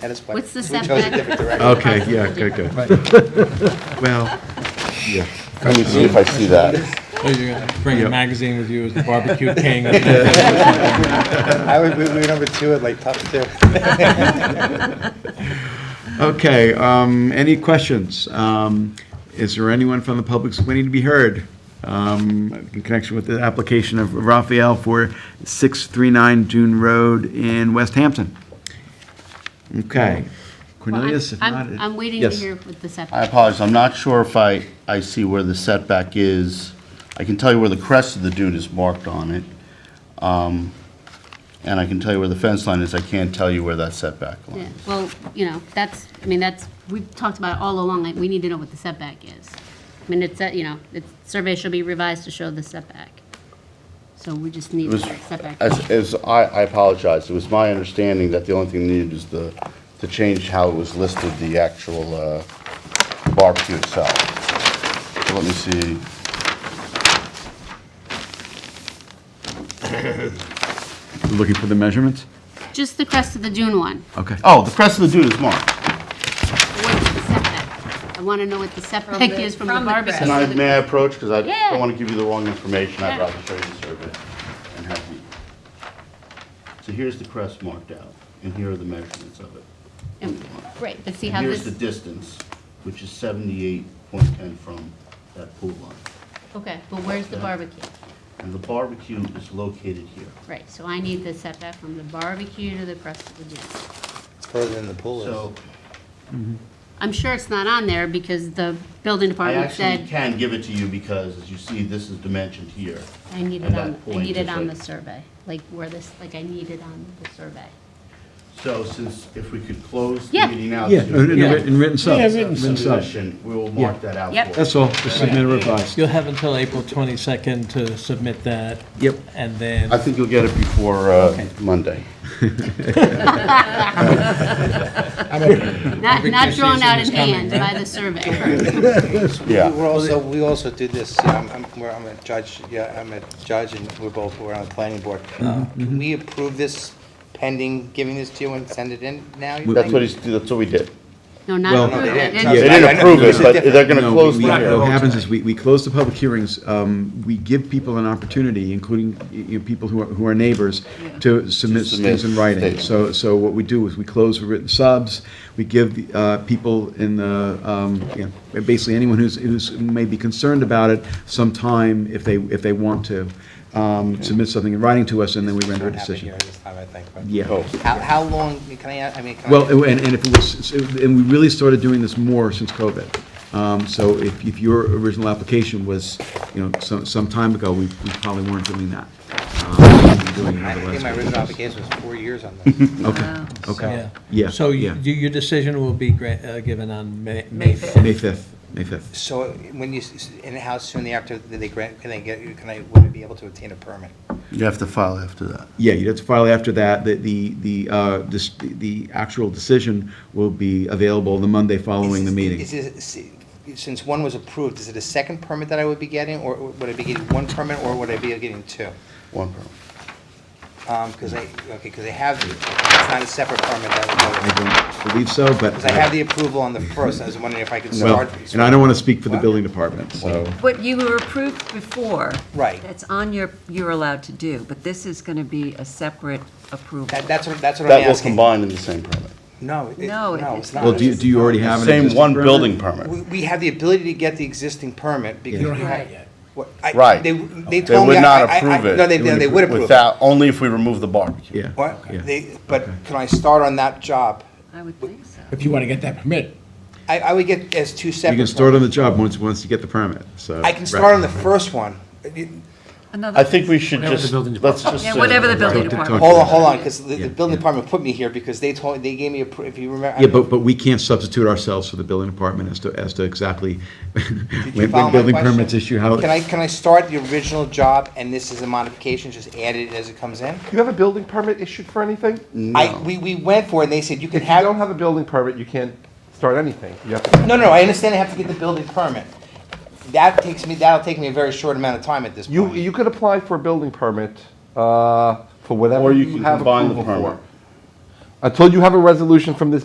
That is why. What's the We chose a setback? different direction. Okay, yeah, good, good. Well, yeah. Let me see if I see that. Or you're gonna Bring Yep. a magazine with you as the barbecue king. I was, we we were number two at like top two. Okay, um, any questions? Um, Is there anyone from the public waiting to be heard um, in connection with the application of Raphael for 639 Dune Road in West Hampton? Okay. Well, I'm- Cornelius, if I'm- not... it- I'm waiting to Yes. hear with the I setback. apologize, I'm not sure if I, I see where the setback is. I can tell you where the crest of the dune is marked on it. Um, And I can tell you where the fence line is, I can't tell you where that setback line Yeah, is. Well, you know, that's, I mean, that's, we've talked about it all along, like, we need to know what the setback is. I mean, it's, that, you know, the survey should be revised to show the setback. So we just need It was, the setback. as, as, I, I apologize, it was my understanding that the only thing needed is the, to change how it was listed, the actual uh, barbecue itself. So Let me see. Looking for the measurements? Just the crest of the dune one. Okay. Oh, the crest of the dune is marked. What's the setback? I want to know what the setback the- is from the from the crest. Can barbecue. I, may I approach, because I Yeah. don't want to give you the wrong information, I'd Yeah. rather show you the survey and have you. So here's the crest marked out, and here are the measurements of it. Right, but see And how Here's the this, distance, which is seventy-eight point ten from that pool line. okay, but where's the barbecue? And the barbecue is located here. Right, so I need the setback from the barbecue to the crest of the dune. It's further than the pool So is. I'm sure it's not on there because the building I department actually said, can give it to you because, as you see, this is dimensioned here. I need it and that on, I point need it is on the like- survey, like where this, like I need it on the survey. So since, if we could close Yeah. the meeting out. Yeah, to- in writ- in written sub. Yeah, Written sub. submission, we will mark that out for Yep. you. That's all, just submit a revised. You'll have until April 22nd to submit that. Yep. And then. I think you'll get it before uh, Monday. Not, not Christmas drawn out in is coming, hand by the survey. Yeah. We were also, we also did this, you know, I'm, I'm- we're- I'm a judge, yeah, I'm a judge and we're both, we're on the planning board. Mm-hmm, Um, Can we approve this pending, giving this to you and send it in now? you That's think? what he's, that's what we did. No, Well- not No, they approved. didn't. It's- They Yeah. didn't approve it, but they're going to No, close we- the we- hearing. What hearing. happens is, we, we close the public hearings, um, we give people an opportunity, including, y- you know, people who are, who are neighbors, to submit submit things in writing. statements. So, so what we do is, we close the written subs, we give, the, uh, people in the, um, you know, basically anyone who's, who's maybe concerned about it, some time, if they, if they want to, um, submit something in writing to us, and then we render a Not happening here decision. this time, I think, but- Oh, Yeah. How, how long, can I, ask- I mean, can I? Well, and, and if it was, and we really started doing this more since COVID. Um, so if, if your original application was, you know, some, some time ago, we, we probably weren't doing that. Um, we've been doing it I over the think last my couple original of years. application was four years on this. Okay, okay, Yeah. yeah, So yeah. you- your decision will be gra- uh, given on May May 5th. May fifth, May fifth. So when you, s- s- and how soon after did they grant, can they get, can I, would I be able to obtain a permit? You have to file after that. Yeah, you'd have to file after that, the, the, the, uh, this, the actual decision will be available the Monday following the Is- meeting. Is it, s- since one was approved, is it a second permit that I would be getting, or would I be getting one permit, or would I be getting two? One permit. Um, because I, okay, because I have, it's not a separate permit that would go, I don't believe so, but. uh, because I have the approval on the first, I was wondering if I could Well, start. and I don't want to speak for the What? building department, so. What you were approved before. Right. That's on your, you're allowed to do, but this is going to be a separate approval. That, that's what, that's what I'm That will asking. combine in the same permit. No, it, No, no, it's it's not. Well, do you, do you already have an Same existing one permit? building permit. We, we have the ability to get the existing permit because. You we have it had- What- I- Right. They, they They told me. would I- not I- I- approve it. No, they, no, they would approve it. Without, only if we remove the barbecue. Yeah. What? yeah. They, but can I start on that job? I would think so. if you want to get that permit. I, I would get as two separate. You can start on permits. the job once, once you get the permit, so. I can start on the first one. You- Another. I think we should just, let's just. Yeah, say- whatever the building Talk to- talk department. Hold on, hold on, because the, Yeah, the building yeah. department put me here because they told, they gave me a, pr- if you remember. I Yeah, don't- but, but we can't substitute ourselves for the building department as to, as to exactly Did you follow when, my when building question? permits issue, how. Can I, can I start the original job and this is a modification, just add it as it comes in? You have a building permit issued for anything? If I, we, we went for it and they said you you can have. don't have a building permit, you can't start anything. You have to. No, no, I understand I have to get the building permit. That takes me, that'll take me a very short amount of time at this You, point. you could apply for a building permit, uh, for whatever Or you you can have combine the approval permit. for. Until you have a resolution from this